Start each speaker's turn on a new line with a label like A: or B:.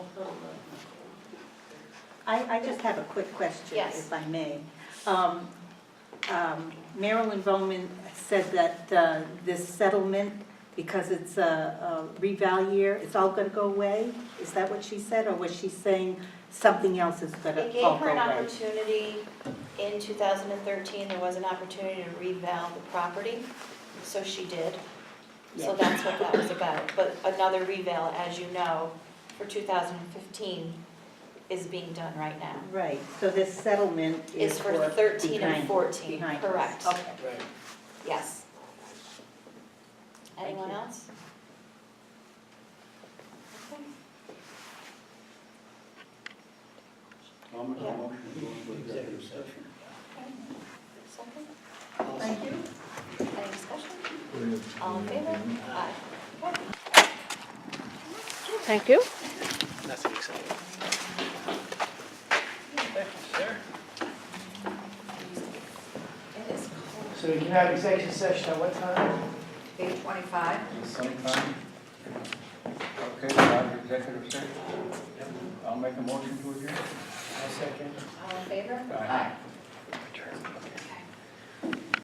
A: I, I just have a quick question,
B: Yes.
A: if I may. Um, um, Marilyn Bowman said that uh, this settlement, because it's a a reval year, it's all going to go away? Is that what she said, or was she saying something else is going to
B: It
A: all
B: gave her
A: go
B: an
A: away?
B: opportunity, in 2013, there was an opportunity to reval the property, so she did.
A: Yeah.
B: So that's what that was about. But another reval, as you know, for 2015 is being done right now.
A: Right, so this settlement
B: Is
A: is
B: for
A: for
B: 13 and
A: behind-
B: 14,
A: behind us.
B: correct.
A: Okay.
C: Right.
B: Yes. Anyone
A: you.
B: else? Okay.
D: I'll make a
B: Yeah.
D: motion to go into executive session.
B: Second?
A: Thank you.
B: Any discussion? All in favor? Aye. Okay.
E: Thank you.
C: Nothing exciting.
B: It is cold.
C: So we can have executive session at what time?
B: Eight twenty-five.
D: Sometime. Okay, we'll have executive session. I'll make a motion to adjourn.
C: A second.
B: All in favor?
D: Aye.
C: Return. Okay.